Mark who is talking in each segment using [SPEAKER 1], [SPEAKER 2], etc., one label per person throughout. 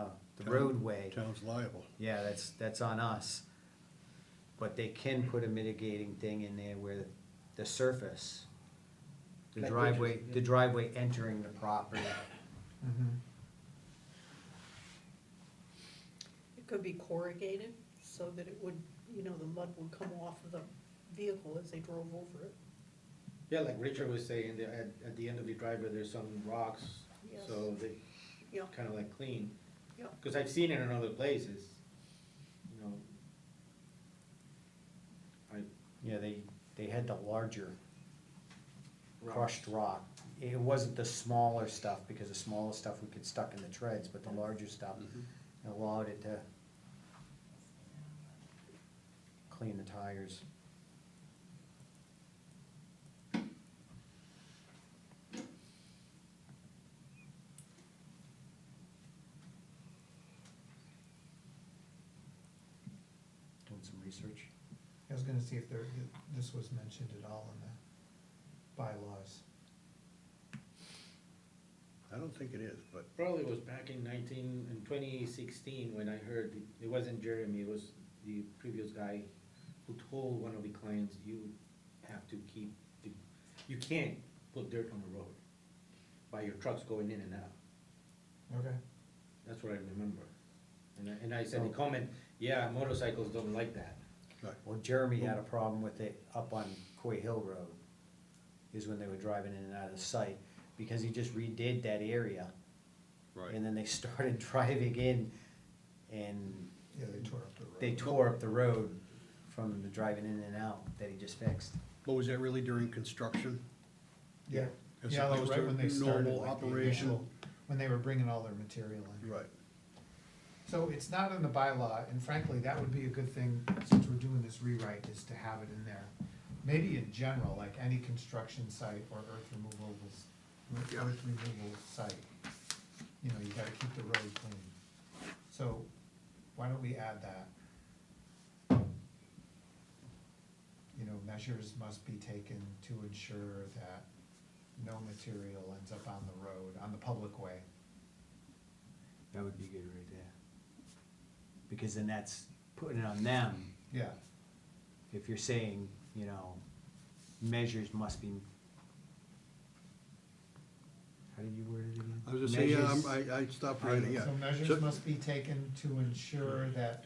[SPEAKER 1] Oh,
[SPEAKER 2] roadway,
[SPEAKER 3] Town's liable.
[SPEAKER 2] yeah, that's, that's on us. But they can put a mitigating thing in there where the surface, the
[SPEAKER 1] Like
[SPEAKER 2] driveway,
[SPEAKER 1] bridges, yeah.
[SPEAKER 2] the driveway entering the property.
[SPEAKER 4] It could be corrugated, so that it would, you know, the mud would come off of the vehicle as they drove over it.
[SPEAKER 1] Yeah, like Richard was saying, there at, at the end of the driveway, there's some rocks,
[SPEAKER 4] Yes.
[SPEAKER 1] so they
[SPEAKER 4] Yeah,
[SPEAKER 1] kind of like clean.
[SPEAKER 4] Yeah.
[SPEAKER 1] Cause I've seen it in other places, you know. I,
[SPEAKER 2] Yeah, they, they had the larger
[SPEAKER 1] rock,
[SPEAKER 2] crushed rock. It wasn't the smaller stuff, because the smaller stuff we could stuck in the treads, but the larger stuff allowed it to clean the tires. Doing some research.
[SPEAKER 5] I was gonna see if there, this was mentioned at all in the bylaws.
[SPEAKER 3] I don't think it is, but
[SPEAKER 1] probably was back in nineteen, in twenty sixteen, when I heard, the- it wasn't Jeremy, it was the previous guy who told one of the clients, you have to keep, the- you can't put dirt on the road by your trucks going in and out.
[SPEAKER 5] Okay.
[SPEAKER 1] That's what I remember. And I, and I said the comment, yeah, motorcycles don't like that.
[SPEAKER 2] Well, Jeremy had a problem with it up on Coy Hill Road, is when they were driving in and out of sight, because he just redid that area. And then they started driving in, and
[SPEAKER 5] Yeah, they tore up the road.
[SPEAKER 2] they tore up the road from the driving in and out that he just fixed.
[SPEAKER 3] But was that really during construction?
[SPEAKER 5] Yeah,
[SPEAKER 3] As
[SPEAKER 5] yeah, like
[SPEAKER 3] opposed
[SPEAKER 5] right
[SPEAKER 3] to
[SPEAKER 5] when they started,
[SPEAKER 3] normal
[SPEAKER 5] like the
[SPEAKER 3] operation?
[SPEAKER 5] initial, when they were bringing all their material in.
[SPEAKER 3] Right.
[SPEAKER 5] So it's not in the bylaw, and frankly, that would be a good thing, since we're doing this rewrite, is to have it in there. Maybe in general, like any construction site or earth removal, earth
[SPEAKER 3] Yeah.
[SPEAKER 5] removal site, you know, you gotta keep the road clean. So, why don't we add that? You know, measures must be taken to ensure that no material ends up on the road, on the public way.
[SPEAKER 2] That would be good right there. Because then that's putting it on them,
[SPEAKER 5] Yeah,
[SPEAKER 2] if you're saying, you know, measures must be. How did you word it again?
[SPEAKER 3] I was just saying, yeah,
[SPEAKER 2] Measures-
[SPEAKER 3] I'm- I, I stopped writing, yeah.
[SPEAKER 5] So measures
[SPEAKER 3] So-
[SPEAKER 5] must be taken to ensure that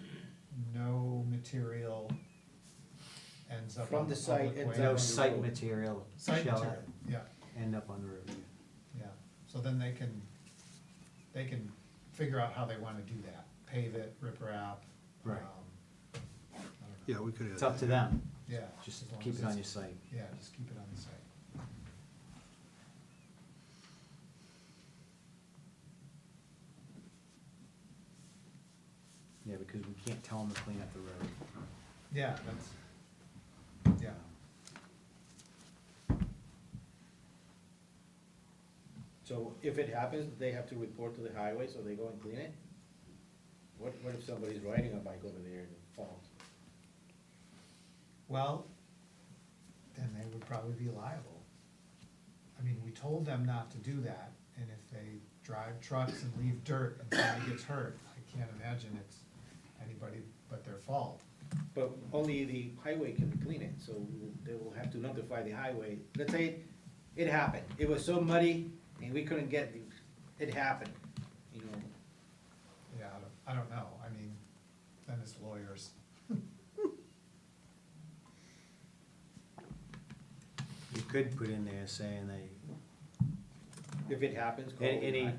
[SPEAKER 5] no material ends up
[SPEAKER 1] From
[SPEAKER 5] on
[SPEAKER 1] the
[SPEAKER 5] the
[SPEAKER 1] site
[SPEAKER 5] public
[SPEAKER 1] ends
[SPEAKER 5] way.
[SPEAKER 2] No
[SPEAKER 1] on the
[SPEAKER 2] site
[SPEAKER 1] road.
[SPEAKER 2] material
[SPEAKER 5] Site
[SPEAKER 2] shall
[SPEAKER 5] material, yeah,
[SPEAKER 2] end up on the road.
[SPEAKER 5] yeah, so then they can, they can figure out how they wanna do that, pave it, riprap.
[SPEAKER 2] Right.
[SPEAKER 5] um, I don't
[SPEAKER 3] Yeah,
[SPEAKER 5] know.
[SPEAKER 3] we could add
[SPEAKER 2] It's up
[SPEAKER 3] that,
[SPEAKER 2] to
[SPEAKER 3] yeah.
[SPEAKER 2] them,
[SPEAKER 5] Yeah.
[SPEAKER 2] just
[SPEAKER 5] as long
[SPEAKER 2] keep
[SPEAKER 5] as
[SPEAKER 2] it on your
[SPEAKER 5] it's-
[SPEAKER 2] site.
[SPEAKER 5] Yeah, just keep it on the site.
[SPEAKER 2] Yeah, because we can't tell them to clean up the road.
[SPEAKER 5] Yeah, that's, yeah,
[SPEAKER 1] So if it happens, they have to report to the highway, so they go and clean it? What, what if somebody's riding a bike over there and falls?
[SPEAKER 5] well, then they would probably be liable. I mean, we told them not to do that, and if they drive trucks and leave dirt and somebody gets hurt, I can't imagine it's anybody but their fault.
[SPEAKER 1] But only the highway can clean it, so they will have to notify the highway. Let's say it happened, it was so muddy and we couldn't get, the- it happened, you know?
[SPEAKER 5] Yeah, I don't, I don't know, I mean, then it's lawyers.
[SPEAKER 2] We could put in there saying they,
[SPEAKER 1] If it happens, call.
[SPEAKER 2] a- any,
[SPEAKER 1] the-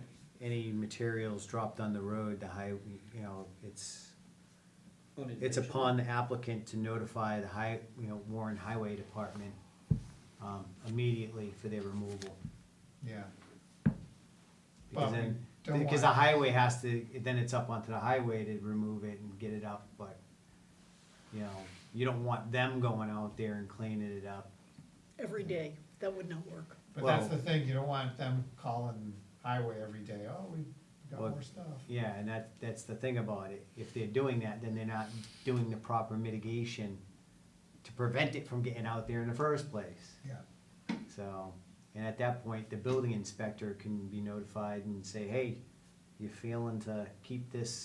[SPEAKER 2] any materials dropped on the road, the high, you know, it's, it's
[SPEAKER 1] unintentional.
[SPEAKER 2] upon the applicant to notify the high, you know, Warren Highway Department, um, immediately for their removal.
[SPEAKER 5] Yeah,
[SPEAKER 2] Because
[SPEAKER 5] But we
[SPEAKER 2] then,
[SPEAKER 5] don't
[SPEAKER 2] because the
[SPEAKER 5] wanna-
[SPEAKER 2] highway has to, then it's up onto the highway to remove it and get it up, but, you know, you don't want them going out there and cleaning it up.
[SPEAKER 4] every day, that would not work.
[SPEAKER 5] but that's
[SPEAKER 2] Well-
[SPEAKER 5] the thing, you don't want them calling highway every day, oh, we got
[SPEAKER 2] Well,
[SPEAKER 5] more stuff.
[SPEAKER 2] Yeah, and that, that's the thing about it, if they're doing that, then they're not doing the proper mitigation to prevent it from getting out there in the first place,
[SPEAKER 5] Yeah,
[SPEAKER 2] so. And at that point, the building inspector can be notified and say, hey, you're failing to keep this